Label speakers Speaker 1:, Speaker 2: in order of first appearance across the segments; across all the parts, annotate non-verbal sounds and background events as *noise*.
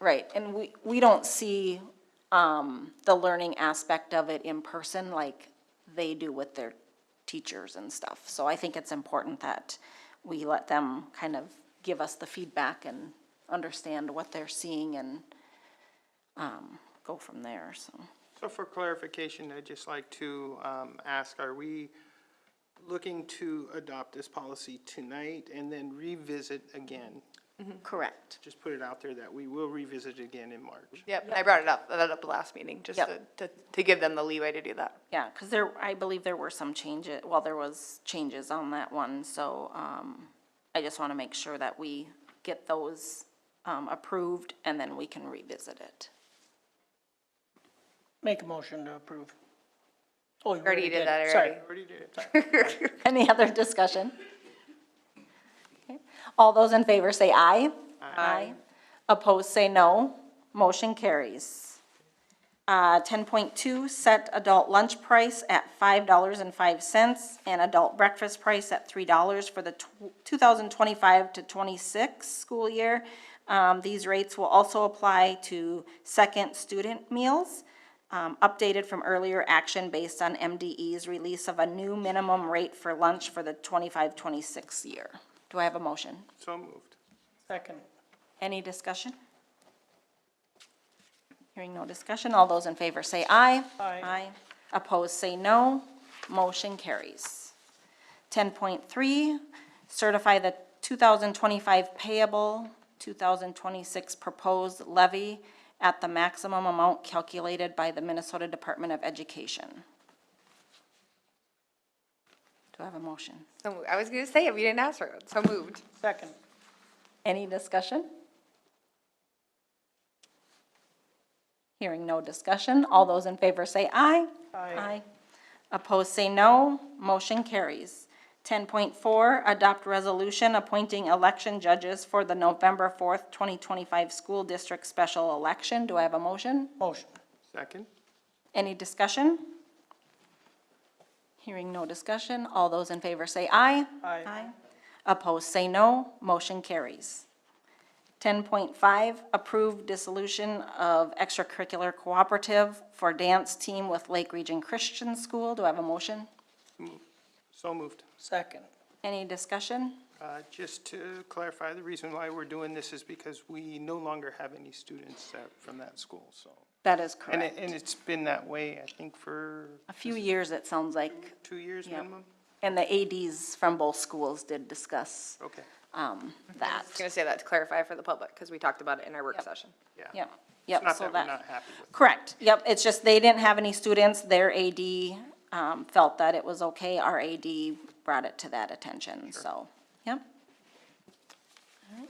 Speaker 1: Right, and we, we don't see um, the learning aspect of it in person like they do with their teachers and stuff. So I think it's important that we let them kind of give us the feedback and understand what they're seeing and um, go from there, so.
Speaker 2: So for clarification, I'd just like to um, ask, are we looking to adopt this policy tonight and then revisit again?
Speaker 1: Correct.
Speaker 2: Just put it out there that we will revisit again in March.
Speaker 3: Yep, I brought it up, I brought it up last meeting, just
Speaker 1: Yep.
Speaker 3: to, to, to give them the leeway to do that.
Speaker 1: Yeah, because there, I believe there were some changes, well, there was changes on that one, so um, I just want to make sure that we get those um, approved, and then we can revisit it. *laughs*
Speaker 4: Make a motion to approve. Oh, you
Speaker 3: Already did that
Speaker 4: it. Sorry.
Speaker 2: Already
Speaker 3: already.
Speaker 2: did it.
Speaker 1: Any other discussion? Okay. All those in favor say aye. Aye. Opposed, say no. Motion carries. Uh, 10.2, set adult lunch price at $5.05 and adult breakfast price at $3 for the tw- 2025 to 26 school year. Um, These rates will also apply to second student meals um, updated from earlier action based on MDE's release of a new minimum rate for lunch for the 25-26 year. Do I have a motion?
Speaker 2: So moved.
Speaker 4: Second.
Speaker 1: Any discussion? Hearing no discussion, all those in favor say aye.
Speaker 4: Aye.
Speaker 1: Aye. Opposed, say no. Motion carries. Ten point three, certify the two thousand twenty-five payable, two thousand twenty-six proposed levy at the maximum amount calculated by the Minnesota Department of Education. Do I have a motion?
Speaker 3: So I was gonna say it, we didn't ask for it, so moved.
Speaker 4: Second.
Speaker 1: Any discussion? Hearing no discussion, all those in favor say aye.
Speaker 4: Aye.
Speaker 1: Opposed say no, motion carries. Ten point four, adopt resolution appointing election judges for the November fourth, twenty twenty-five school district special election. Do I have a motion?
Speaker 4: Motion.
Speaker 2: Second?
Speaker 1: Any discussion? Hearing no discussion, all those in favor say aye.
Speaker 4: Aye.
Speaker 1: Opposed, say no. Motion carries. 10.5, approve dissolution of extracurricular cooperative for dance team with Lake Region Christian School. Do I have a motion?
Speaker 2: So moved.
Speaker 4: Second.
Speaker 1: Any discussion?
Speaker 2: Uh, Just to clarify, the reason why we're doing this is because we no longer have any students that- from that school, so.
Speaker 1: That is
Speaker 2: And it,
Speaker 1: correct.
Speaker 2: and it's been that way, I think, for
Speaker 1: A few years, it sounds like,
Speaker 2: two years
Speaker 1: Yeah.
Speaker 2: minimum?
Speaker 1: and the ADs from both schools did discuss
Speaker 2: Okay,
Speaker 1: um, that.
Speaker 3: Just gonna say that to clarify for the public, because we talked about it in our work session.
Speaker 2: yeah.
Speaker 1: Yep,
Speaker 2: It's
Speaker 1: yep,
Speaker 2: not
Speaker 1: so
Speaker 2: that we're
Speaker 1: that.
Speaker 2: not happy with it.
Speaker 1: Correct, yep, it's just they didn't have any students, their AD um, felt that it was okay, our AD brought it to that attention, so, yep. All right.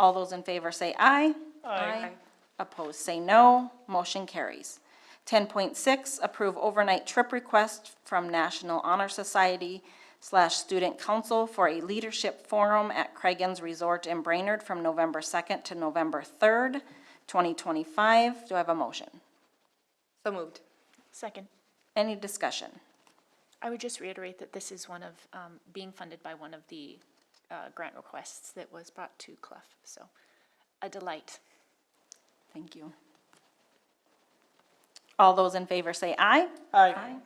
Speaker 1: All those in favor say aye. Aye. Opposed say no, motion carries. Ten point six, approve overnight trip request from National Honor Society slash Student Council for a leadership forum at Craigens Resort in Brainerd from November second to November third, twenty twenty-five. Do I have a motion?
Speaker 3: So moved.
Speaker 5: Second.
Speaker 1: Any discussion?
Speaker 5: I would just reiterate that this is one of, um, being funded by one of the uh, grant requests that was brought to Clough. So a delight.
Speaker 1: Thank you. All those in favor say aye.
Speaker 4: Aye.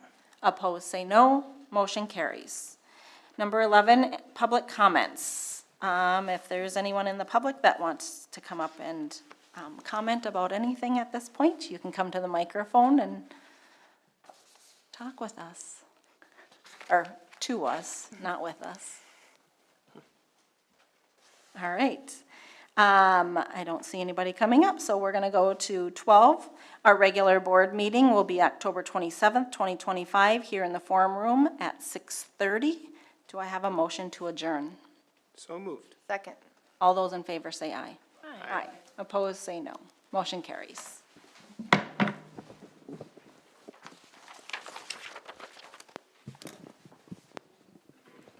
Speaker 1: Opposed, say no. Motion carries. Number 11, public comments. Um, If there's anyone in the public that wants to come up and um, comment about anything at this point, you can come to the microphone and talk with us, or to us, not with us. All right. Um, I don't see anybody coming up, so we're gonna go to twelve. Our regular board meeting will be October twenty-seventh, twenty twenty-five, here in the forum room at six thirty. Do I have a motion to adjourn?
Speaker 2: So moved.
Speaker 3: Second.
Speaker 1: All those in favor say aye.
Speaker 5: Aye.
Speaker 1: Aye. Opposed, say no. Motion carries.